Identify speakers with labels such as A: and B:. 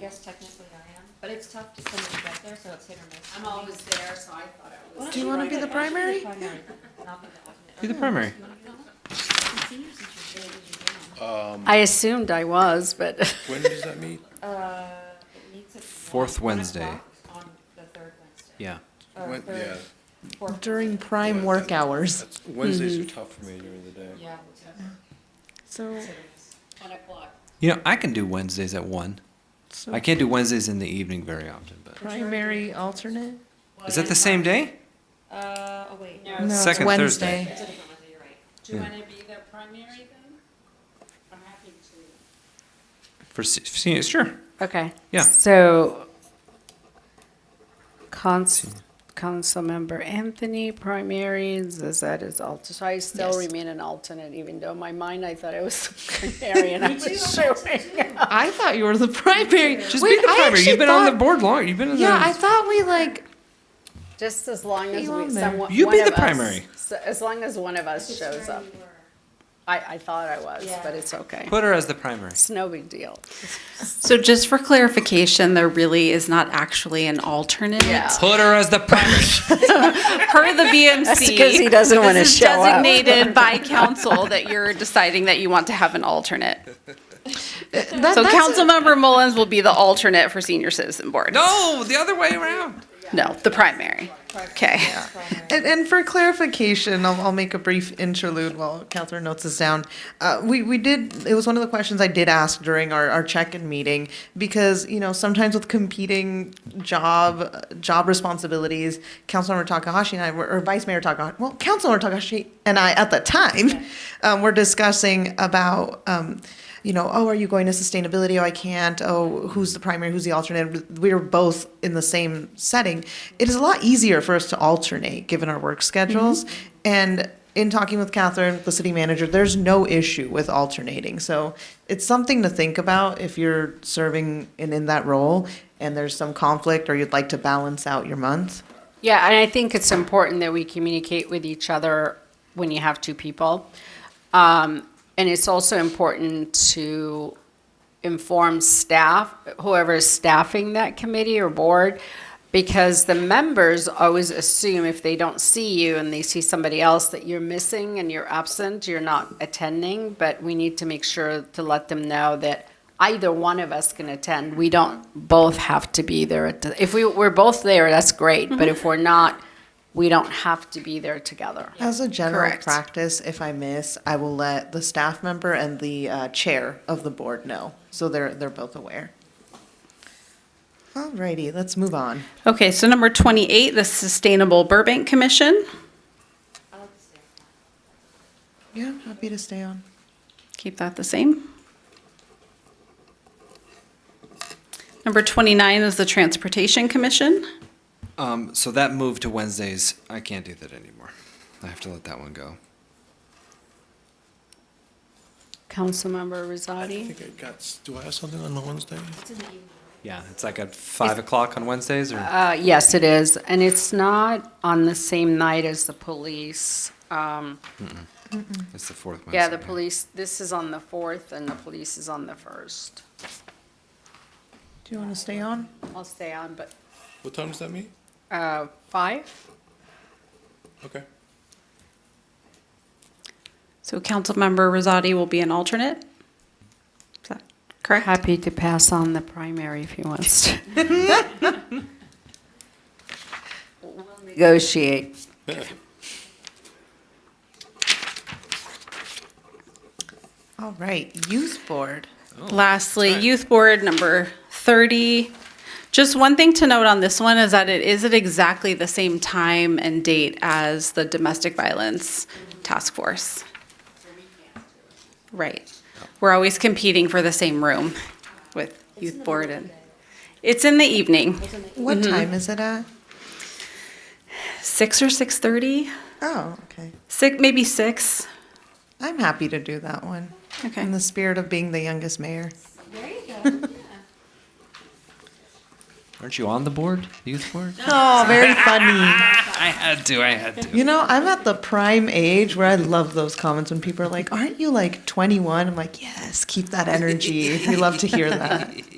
A: guess technically I am, but it's tough to send it back there, so it's hit or miss.
B: I'm always there, so I thought I
A: Why
B: was.
A: don't
C: Do you wanna
A: write
C: be
A: it?
C: the
A: Why don't you
C: primary?
A: then? I'll be the alternate.
D: Be the
A: Okay.
D: primary.
A: You wanna be on that? It's senior since you're big, you're big.
C: I assumed I was, but
E: When does that meet?
A: Uh, it meets at
D: Fourth
A: one
D: Wednesday.
A: o'clock On the third Wednesday.
D: Yeah.
A: Or
E: When-
A: third, fourth.
F: During prime work hours.
E: That's- Wednesdays are tough for me during the day.
A: Yeah.
F: So,
B: One o'clock.
D: You know, I can do Wednesdays at one. I
F: so
D: can't do Wednesdays in the evening very often, but
F: primary alternate?
D: is that the same day?
A: Uh, oh, wait, no,
B: No.
F: No, it's
D: Second Thursday.
F: Wednesday.
A: it's a different Wednesday, you're right.
B: Do you
D: Yeah.
B: want to be the primary then? I'm happy to.
D: For se- for senior, sure.
C: Okay.
D: Yeah.
C: So, cons, council member Anthony, primary, Zazette is alternate. So I still
F: Yes.
C: remain an alternate, even though in my mind I thought I was primary and I was showing.
F: I thought you were the primary.
D: Just
F: Wait,
D: be the
F: I
D: primary.
F: actually
D: You've been on the
F: thought-
D: board long. You've been in
F: Yeah, I
D: the.
F: thought we like,
C: Just as long as
F: You
C: we,
F: on there.
C: someone,
D: You
C: one
D: be the
C: of us-
D: primary.
C: so- As long as one of us shows up. I, I thought I was,
A: Yeah.
C: but it's okay.
D: Put her as the primary.
C: It's no big deal.
G: So just for clarification, there really is not actually an alternate.
C: Yeah.
D: Put her as the primary.
G: Per the BMC.
C: That's 'cause he doesn't wanna
G: this is
C: show up.
G: designated by council that you're deciding that you want to have an alternate.
F: that,
G: So
F: that's,
G: Councilmember Mullins will be the alternate for Senior Citizen Board.
D: No, the other way around.
G: No, the primary. Okay.
A: Primary.
F: and, and for clarification, I'll, I'll make a brief interlude while Catherine notes this down. Uh, we, we did, it was one of the questions I did ask during our, our check-in meeting because, you know, sometimes with competing job, job responsibilities, Councilmember Takahashi and I, were, or Vice Mayor Takahashi, well, Councilmember Takahashi and I at the time, um, were discussing about, um, you know, oh, are you going to sustainability? Oh, I can't. Oh, who's the primary? Who's the alternate? We were both in the same setting. It is a lot easier for us to alternate given our work schedules. And in talking with Catherine, the city manager, there's no issue with alternating. So it's something to think about if you're serving and in that role and there's some conflict or you'd like to balance out your month.
C: Yeah, and I think it's important that we communicate with each other when you have two people. Um, and it's also important to inform staff, whoever is staffing that committee or board, because the members always assume if they don't see you and they see somebody else that you're missing and you're absent, you're not attending, but we need to make sure to let them know that either one of us can attend. We don't both have to be there. at the- If we, we're both there, that's great, but if we're not, we don't have to be there together.
F: As a general
G: Correct.
F: practice, if I miss, I will let the staff member and the uh, chair of the board know, so they're they're both aware. Alrighty, let's move on.
G: Okay, so number 28, the Sustainable Burbank Commission.
A: I like to stay on that.
F: Yeah, I'm happy to stay on.
G: Keep that the same. Number 29 is the Transportation Commission.
D: Um, so that moved to Wednesdays. I can't do that anymore. I have to let that one go.
C: Councilmember
E: I
C: Rosati?
E: think I got, s- do I have something on the Wednesday?
D: Yeah, it's like at five o'clock on Wednesdays, or
C: Uh, yes, it is, and it's not on the same night as the police. Um,
D: it's the fourth Wednesday.
C: yeah, the police, this is on the fourth and the police is on the first.
F: Do you want to stay on?
C: I'll stay on, but,
E: What time does that meet?
C: uh, five?
E: Okay.
G: So Councilmember Rosati will be an alternate. Is that correct?
C: Happy to pass on the primary if he wants to. Negotiate.
F: All right, youth board.
G: Lastly, Youth Board number 30. Just one thing to note on this one is that it is at exactly the same time and date as the Domestic Violence Task Force. Right. We're always competing for the same room with Youth Board and it's in the evening,
F: What time is it at?
G: 6 or 6:30,
F: Oh, okay.
G: six, maybe 6.
F: I'm happy to do that one.
G: Okay.
F: In the spirit of being the youngest mayor.
A: There you go, yeah.
D: Aren't you on the board, the youth board?
F: Oh, very funny.
D: I had to. I had to.
F: You know, I'm at the prime age where I love those comments when people are like, "Aren't you like 21?" I'm like, "Yes, keep that energy. We love to hear that."